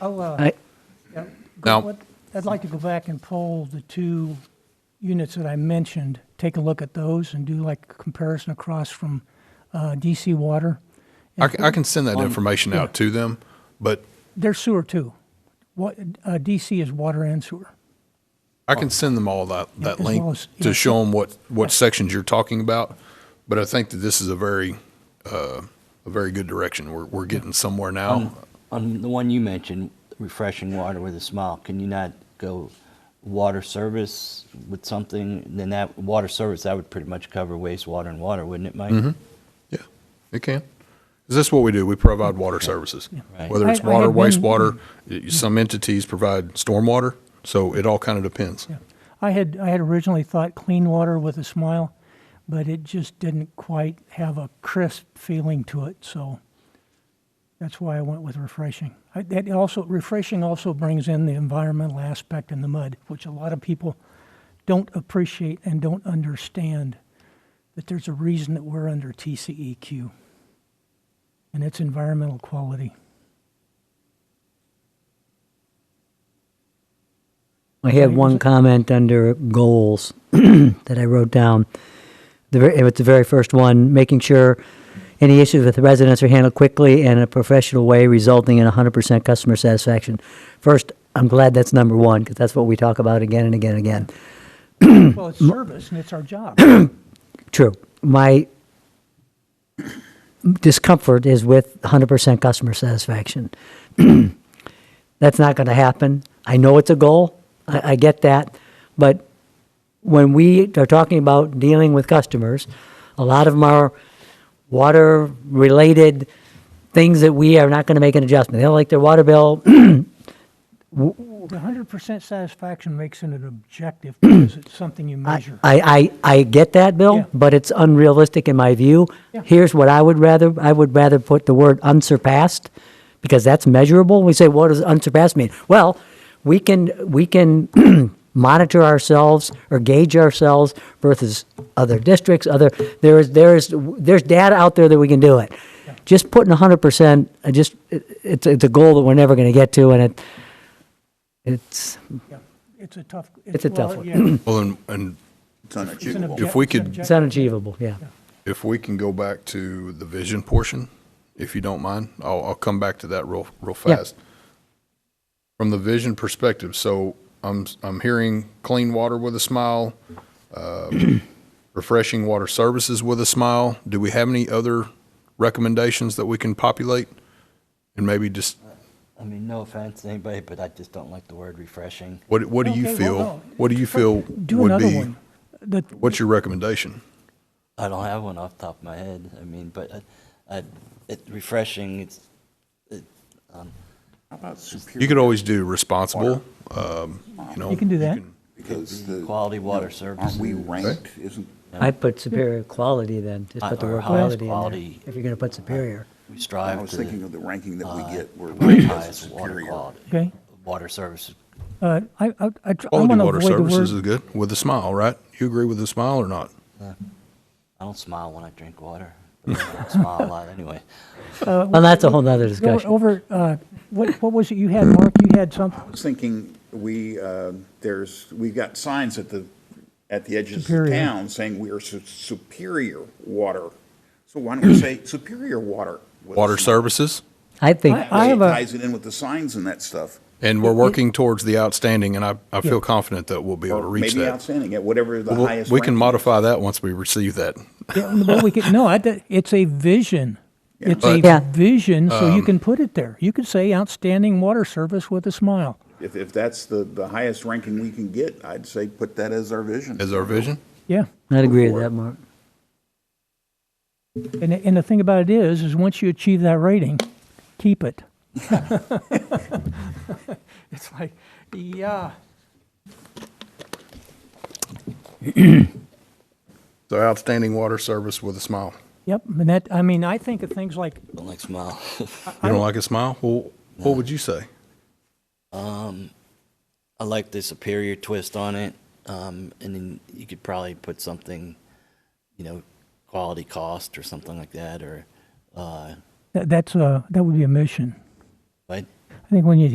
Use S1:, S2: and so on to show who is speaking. S1: Oh, uh,
S2: I-
S1: yeah,
S3: Now-
S1: what- I'd like to go back and pull the two units that I mentioned, take a look at those and do like a comparison across from uh, DC Water.
S3: I, c- I can send that information out to them, but
S1: They're sewer too. What, uh, DC is water and sewer.
S3: I can send them all that,
S1: as
S3: that
S1: well
S3: link
S1: as- yeah.
S3: to show them what, what sections you're talking about. But I think that this is a very, uh, a very good direction. We're, we're getting somewhere now.
S4: On the one you mentioned, refreshing water with a smile, can you not go water service with something? Then that water service, that would pretty much cover wastewater and water, wouldn't it, Mike?
S3: Yeah, it can. Is this what we do? We provide water services,
S4: Right.
S3: whether it's
S1: I- I
S3: water,
S1: had been- Mm-hmm.
S3: wastewater. y- Some entities provide stormwater, so it all kind of depends.
S1: Yeah. I had, I had originally thought clean water with a smile, but it just didn't quite have a crisp feeling to it, so that's why I went with refreshing. I, that also, refreshing also brings in the environmental aspect in the mud, which a lot of people don't appreciate and don't understand that there's a reason that we're under TCEQ, and it's environmental quality.
S2: I have one comment under goals that I wrote down. The, ver- it was the very first one, making sure any issues with residents are handled quickly and in a professional way, resulting in 100% customer satisfaction. First, I'm glad that's number one because that's what we talk about again and again and again.
S1: Well, it's service, and it's our job.
S2: True. My discomfort is with 100% customer satisfaction. That's not going to happen. I know it's a goal. I, I get that. But when we are talking about dealing with customers, a lot of them are water related things that we are not going to make an adjustment. They don't like their water bill.
S1: The hundred percent satisfaction makes it an objective because it's something you
S2: I,
S1: measure.
S2: I, I I get that,
S1: Yeah.
S2: Bill, but it's unrealistic in my view.
S1: Yeah.
S2: Here's what I would rather, I would rather put the word unsurpassed, because that's measurable. We say, what does unsurpassed mean? Well, we can, we can monitor ourselves or gauge ourselves versus other districts, other, there is, there is, there's data out there that we can do it. Just putting hundred percent, I just, it- it's, it's a goal that we're never gonna get to, and it, it's,
S1: Yeah. It's a tough.
S2: It's a tough
S1: well,
S2: one.
S1: yeah,
S3: Well, and, and
S1: it's
S5: It's
S1: an
S5: unachievable.
S1: object-
S3: we
S1: it's an
S2: it's
S3: could-
S1: objective.
S2: unachievable, yeah.
S3: if we can go back to the vision portion, if you don't mind, I'll, I'll come back to that real, real
S2: Yeah.
S3: fast. From the vision perspective, so I'm, I'm hearing clean water with a smile, um, refreshing water services with a smile. Do we have any other recommendations that we can populate? And maybe just,
S4: I mean, no offense to anybody, but I just don't like the word refreshing.
S3: what, what do you
S1: Okay,
S3: feel?
S1: well, no.
S3: What do you feel
S1: Do
S3: would
S1: another
S3: be,
S1: one. The-
S3: what's your recommendation?
S4: I don't have one off the top of my head. I mean, but I, I, it refreshing. It's
S5: How about
S3: You
S5: superior?
S3: could always do responsible, um, you know.
S1: You can do that.
S5: Because the-
S4: quality water services.
S5: Aren't we ranked, isn't,
S2: I'd put superior quality then, just
S4: I-
S2: put the
S4: or
S2: word
S4: highest
S2: quality in there,
S4: quality.
S2: if you're gonna put superior.
S4: we
S5: I
S4: strive
S5: was
S4: to
S5: thinking of the ranking that we get, we're
S4: rank
S5: ranked as
S4: highest water
S5: superior.
S4: quality.
S1: Okay,
S4: Water services.
S1: uh, I, I, I tr- I
S3: Quality
S1: want to
S3: water
S1: avoid the
S3: services is
S1: word.
S3: good with a smile, right? You agree with a smile or not?
S4: I don't smile when I drink water. but I don't smile a lot anyway.
S2: Well, that's a whole nother
S1: Go
S2: discussion.
S1: over, uh, what, what was it you had, Mark? You had
S5: I
S1: something?
S5: was thinking, we, uh, there's, we've got signs at the, at the edges of
S1: Superior.
S5: town saying we are su- superior water. So why don't we say superior water? with a
S3: Water
S5: smile?
S3: services,
S2: I think,
S1: I-
S5: Way It
S1: have a-
S5: ties it in with the signs and that stuff.
S3: and we're working towards the outstanding, and I, I feel confident that we'll be able to
S5: Or
S3: reach
S5: maybe
S3: that.
S5: outstanding, at whatever the
S3: We'll-
S5: highest.
S3: We can
S5: ranking
S3: modify that once we receive that.
S1: Yeah, well, we could- No, I, did- it's a vision. It's
S3: But- um,
S1: a
S2: Yeah.
S1: vision, so you can put it there. You could say outstanding water service with a smile.
S5: If, if that's the, the highest ranking we can get, I'd say put that as our vision.
S3: Is our vision?
S1: Yeah.
S2: I'd agree with that, Mark.
S1: And, and the thing about it is, is once you achieve that rating, keep it. it's like, yeah.
S3: So outstanding water service with a smile.
S1: Yep. And that, I mean, I think of things like,
S4: Don't like smile.
S3: You don't like a smile? Well, what would you say?
S4: I like the superior twist on it. Um, and then you could probably put something, you know, quality cost or something like that, or, uh,
S1: that, that's a, that would be a mission.
S4: right?
S1: I think when you